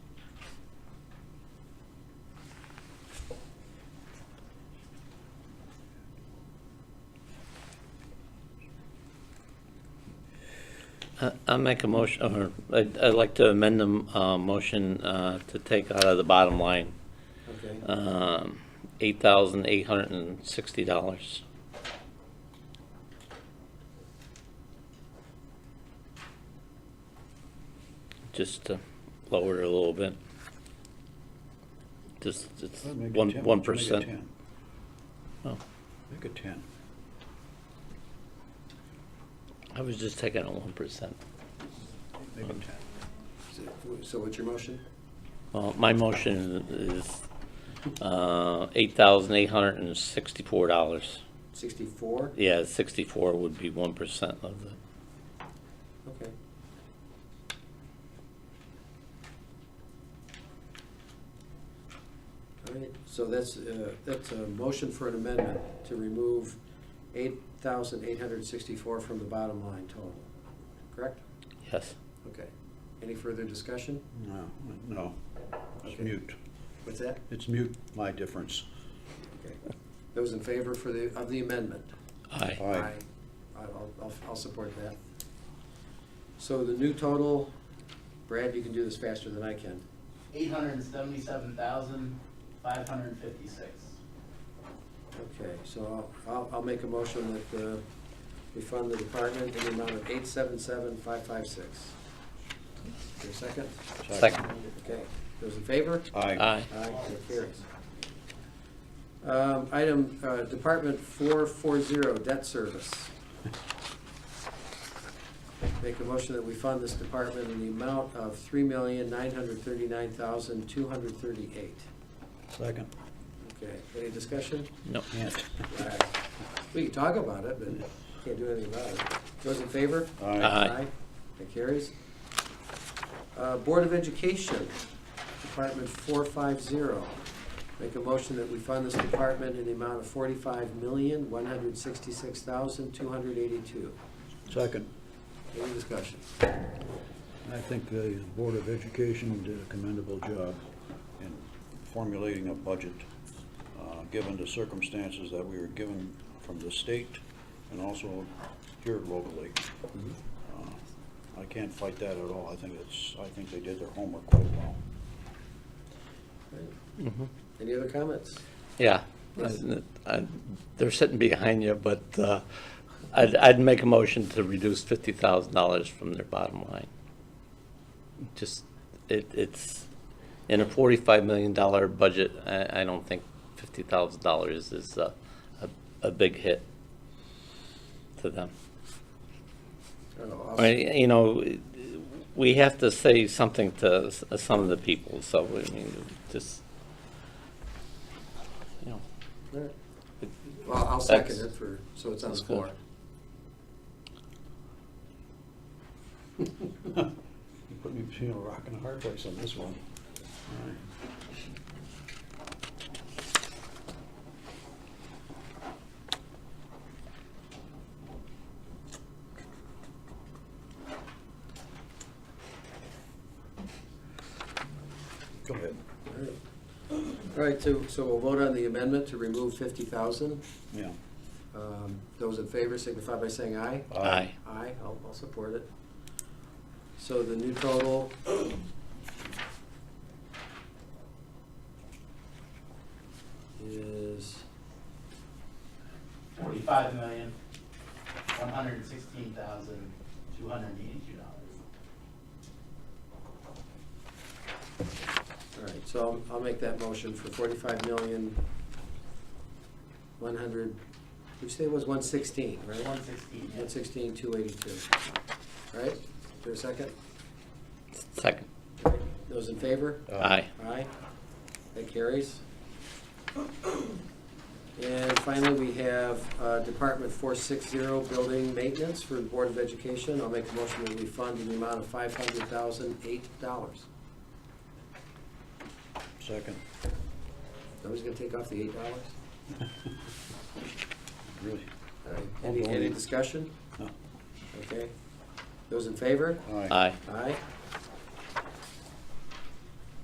I- I'll make a motion, or I'd I'd like to amend the uh, motion uh, to take out of the bottom line Okay. um, $8,860. Just to lower it a little bit. Just, it's Well, make it 10. 1%. Let's one make it percent. 10. Oh, Make it ten. I was just taking a 1%. Make it ten. So what's your motion? Well, my motion is uh, $8,864. Sixty-four? Yeah, 64 would be 1% of the, Okay. All right, so that's, uh, that's a motion for an amendment to remove eight thousand eight hundred sixty-four from the bottom line total, correct? yes. Okay. Any further discussion? No, no, it's Okay. mute. What's that? It's mute, my difference. Okay. Those in favor for the, of the amendment? Aye. Aye. I- I'll, I'll, I'll support that. So the new total, Brad, you can do this faster than I can. eight hundred and seventy-seven thousand, five hundred and fifty-six. Okay, so I'll, I'll make a motion that uh, we fund the department in the amount of eight seven seven five five six. Your second? Second. Okay, those in favor? Aye. Aye. Aye, that carries. Um, Item, uh, Department 440, debt service. Make a motion that we fund this department in the amount of $3,939,238. Second. Okay, any discussion? No. Ant. All right. We can talk about it, but can't do anything about it. Those in favor? Aye. That carries. Uh, Board of Education, Department 450. Make a motion that we fund this department in the amount of $45,166,282. Second. Any discussion? I think the Board of Education did a commendable job in formulating a budget, uh, given the circumstances that we were given from the state and also here locally. Uh, I can't fight that at all. I think it's, I think they did their homework quite well. Mhm. Any other comments? Yeah. I- I- They're sitting behind you, but uh, I'd, I'd make a motion to reduce $50,000 from their bottom line. Just, it, it's, in a $45 million budget, I, I don't think $50,000 is a, a- a big hit to them. Oh, I mean, You know, we have to say something to s- some of the people, so, I mean, just, you know, All right. Well, I'll second it That's- for, so it's on the that's floor. good. You put me between a rock and a hard place on this one. All right. Go ahead. All right. All right, so, so we'll vote on the amendment to remove 50,000. Yeah. Um, Those in favor signify by saying aye. aye, Aye, I'll, I'll support it. So the new total. Is, Forty-five million, one hundred and sixteen thousand, two hundred and eighty-two dollars. all right, so I'll, I'll make that motion for forty-five million, one hundred, you say it was one sixteen, right? One sixteen, One sixteen, two eighty-two. Right, for a second? second, Those in favor? aye. Aye. That carries. And finally, we have uh, Department 460, Building Maintenance for the Board of Education. I'll make a motion that we fund in the amount of $500,008. Second. Nobody's going to take off the $8? Really? All right. Any, Hold on. any discussion? No. Okay. Those in favor? Aye. Aye, Aye.